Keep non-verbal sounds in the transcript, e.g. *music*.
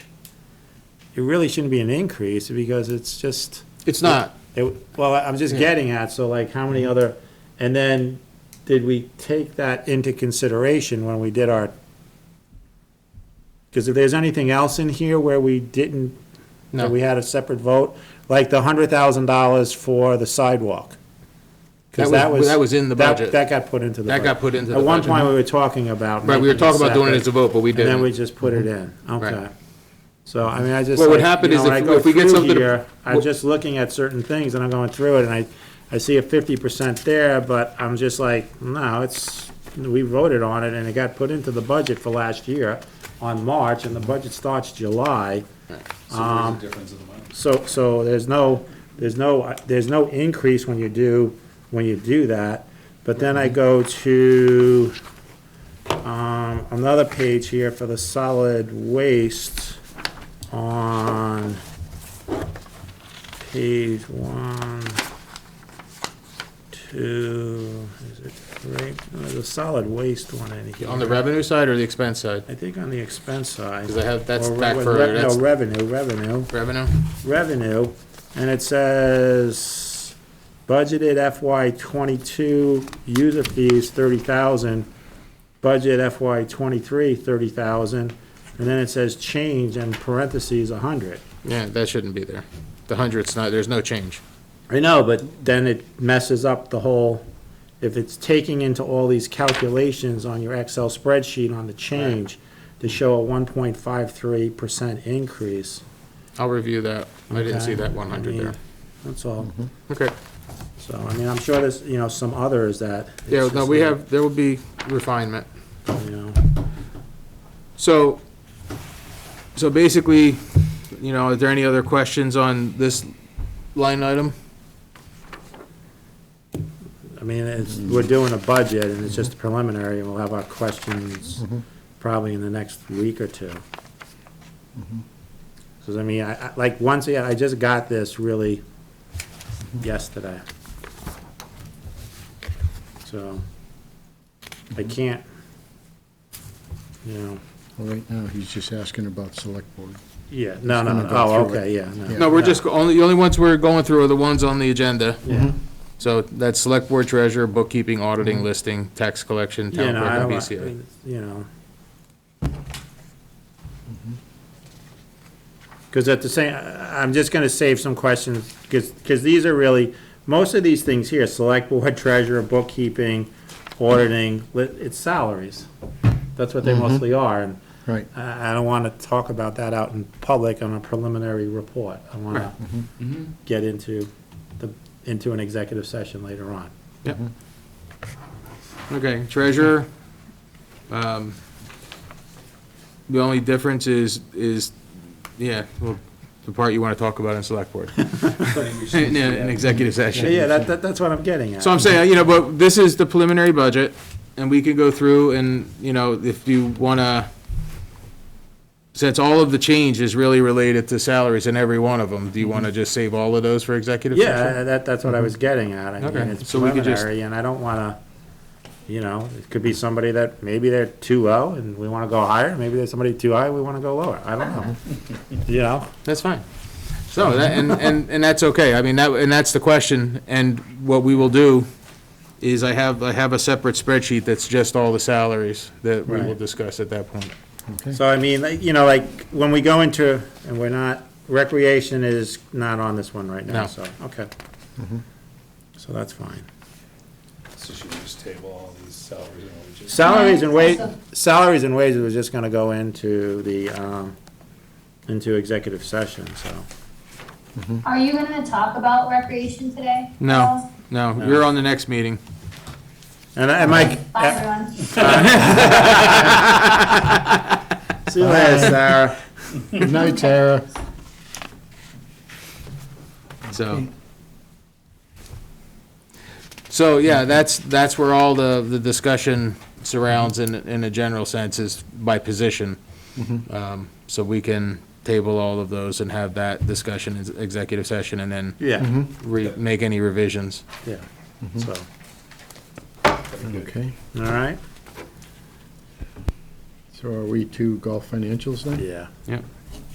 it really shouldn't be an increase because it's just, It's not. it, well, I'm just getting at, so like, how Mm-hmm. many other, and then, did we take that into consideration when we did our? Because if there's anything else in here where we didn't, No. that we had a separate vote, like the hundred thousand dollars for the sidewalk. 'Cause That was- that was in the that- budget. That got put into the. That got budget. put into At the one budget. point, we were talking about. Right, we were making talking about doing it separate, as a vote, but we And then didn't. Mm-hmm. we just put it in, okay. Right. So, I mean, I just. What would like, happen you is know, when if- I go if we get through something- here, I'm Wh- just looking at certain things and I'm going through it and I, I see a fifty percent there, but I'm just like, no, it's, we voted on it and it got put into the budget for last year on March and the budget starts July. Um, So there's a difference in the money. So, so there's no, there's no, there's no increase when you do, when you do that. But then I go to, um, another page here for the solid waste on page one, two, is it three? No, There's a solid waste one in here. On the revenue side or the expense side? I think on the expense side. Because I have, that's Or re- back re- further, No, that's revenue, revenue revenue? revenue, and it says budgeted FY twenty-two user fees thirty thousand, budget FY twenty-three thirty thousand, and then it says change in parentheses a hundred. Yeah, that shouldn't be there. The hundred's not, there's no change. I know, but then it messes up the whole, if it's taking into all these calculations on your Excel spreadsheet on the change to show a one point five three percent increase. I'll review that. I didn't see okay? that one I hundred mean, there. That's all. Okay. So, I mean, I'm sure there's, you know, some others that. it's Yeah, no, just we that, have, there will be refinement. You know, So, so basically, you know, are there any other questions on this line item? I mean, it's, we're doing a budget and it's Mm-hmm. just preliminary and we'll have our questions probably in the next week or two. Mm-hmm. Cause I mean, I, I, like, once, again, I just got this really Mm-hmm. yesterday. So, Mm-hmm. I can't, you know, Well, Right now, he's just asking about select board. yeah, no, no, gonna no, go oh, through it. okay, yeah, no. No, we're just, go- only, the only ones we're going through are the ones on the agenda. Yeah. So that's select board treasurer, bookkeeping, auditing, listing, tax collection, You town know, Mm-hmm. I clerk, don't, and want- BCA. you know. Because at the same, I- I'm just gonna save some questions, because, these are really, most of these things here, select board, *laughs* treasurer, bookkeeping, auditing, li- it's salaries. That's what they mostly are, and Right. I, I don't wanna talk about that out in public on a preliminary report. I wanna get into the, into an executive session later on. Yep. Mm-hmm. Okay, treasurer, um, the only difference is, is, yeah, well, the part you want to talk about in *laughs* select board, in, in executive Yeah, session. Yeah, that, that, that's what I'm getting at. So I'm saying, you know, but this is the preliminary budget, and we can go through and, you know, if you wanna, since all of the change is really related to salaries in every one of them, do you wanna just save all of those for executive session? Mm-hmm. Yeah, that, that's what I was getting at. I mean, Mm-hmm. Okay, it's so we could just- preliminary, and I don't wanna, you know, it could be somebody that, maybe they're too low and we wanna go higher, maybe there's somebody too high, we wanna go lower, I don't *laughs* know. You know, That's fine. So, that- and, and, and that's okay, I mean, that, and that's the question, and what we will do is I have, I have a separate spreadsheet that's just all the salaries that we will Right. discuss at that point. Okay. so I mean, like, you know, like, when we go into, and we're not, recreation is not on this one right now, No. Mm-hmm. so, okay. So that's fine. So should we just table all these salaries and wages? Salaries and wa, salaries and wages was just gonna go into the, um, into executive session, so. Are you gonna talk about recreation today? No, no, Uh, you're on the next meeting. And, I- and Mike. Bye, everyone. See you later, Sarah. Good night, Tara. So. So, yeah, that's, that's where all the, the discussion surrounds in, in a general sense is by position. Um, So we can table all of those and have that discussion in executive session and then Yeah, re, make any revisions. yeah, so, Okay. all right? So are we to golf financials then? Yeah. Yep.